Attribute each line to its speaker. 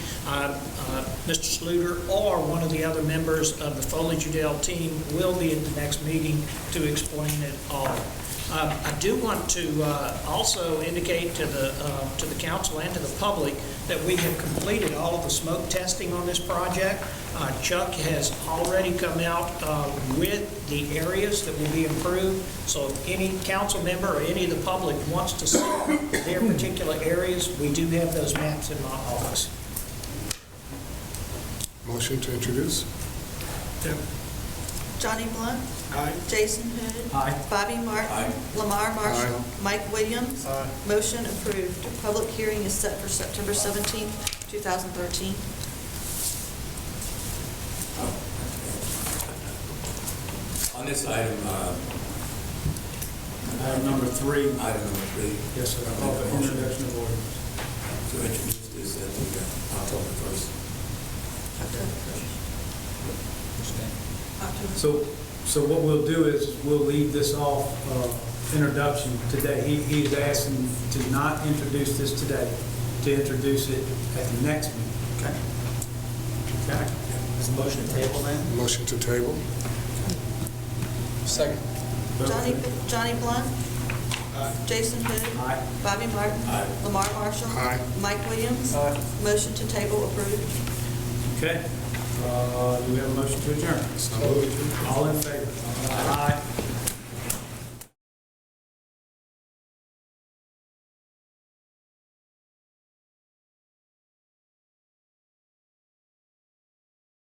Speaker 1: uh, uh, Mr. Sluter or one of the other members of the Foley Judell team will be at the next meeting to explain it all. Uh, I do want to uh, also indicate to the, uh, to the council and to the public that we have completed all of the smoke testing on this project. Uh, Chuck has already come out uh, with the areas that will be improved, so if any council member or any of the public wants to see their particular areas, we do have those maps in my office.
Speaker 2: Motion to introduce?
Speaker 3: Johnny Blunt.
Speaker 2: Aye.
Speaker 3: Jason Hood.
Speaker 1: Aye.
Speaker 3: Bobby Martin. Lamar Marshall.
Speaker 2: Aye.
Speaker 3: Mike Williams. Motion approved. Public hearing is set for September 17th, 2013.
Speaker 4: On this item, uh,
Speaker 5: Item number three.
Speaker 4: item number three.
Speaker 5: Yes, sir.
Speaker 4: I'll make a
Speaker 5: Of the
Speaker 4: motion
Speaker 5: introduction of ordinance.
Speaker 4: To introduce this at the uh, October first.
Speaker 3: October.
Speaker 5: So, so what we'll do is, we'll leave this off, uh, introduction today. He, he is asking to not introduce this today, to introduce it at the next meeting.
Speaker 6: Okay. Okay. Is the motion to table then?
Speaker 2: Motion to table?
Speaker 6: Second.
Speaker 3: Johnny, Johnny Blunt. Jason Hood.
Speaker 5: Aye.
Speaker 3: Bobby Martin.
Speaker 4: Aye.
Speaker 3: Lamar Marshall.
Speaker 2: Aye.
Speaker 3: Mike Williams. Motion to table approved.
Speaker 5: Okay. Uh, do we have a motion to adjourn?
Speaker 2: So moved.
Speaker 5: All in favor?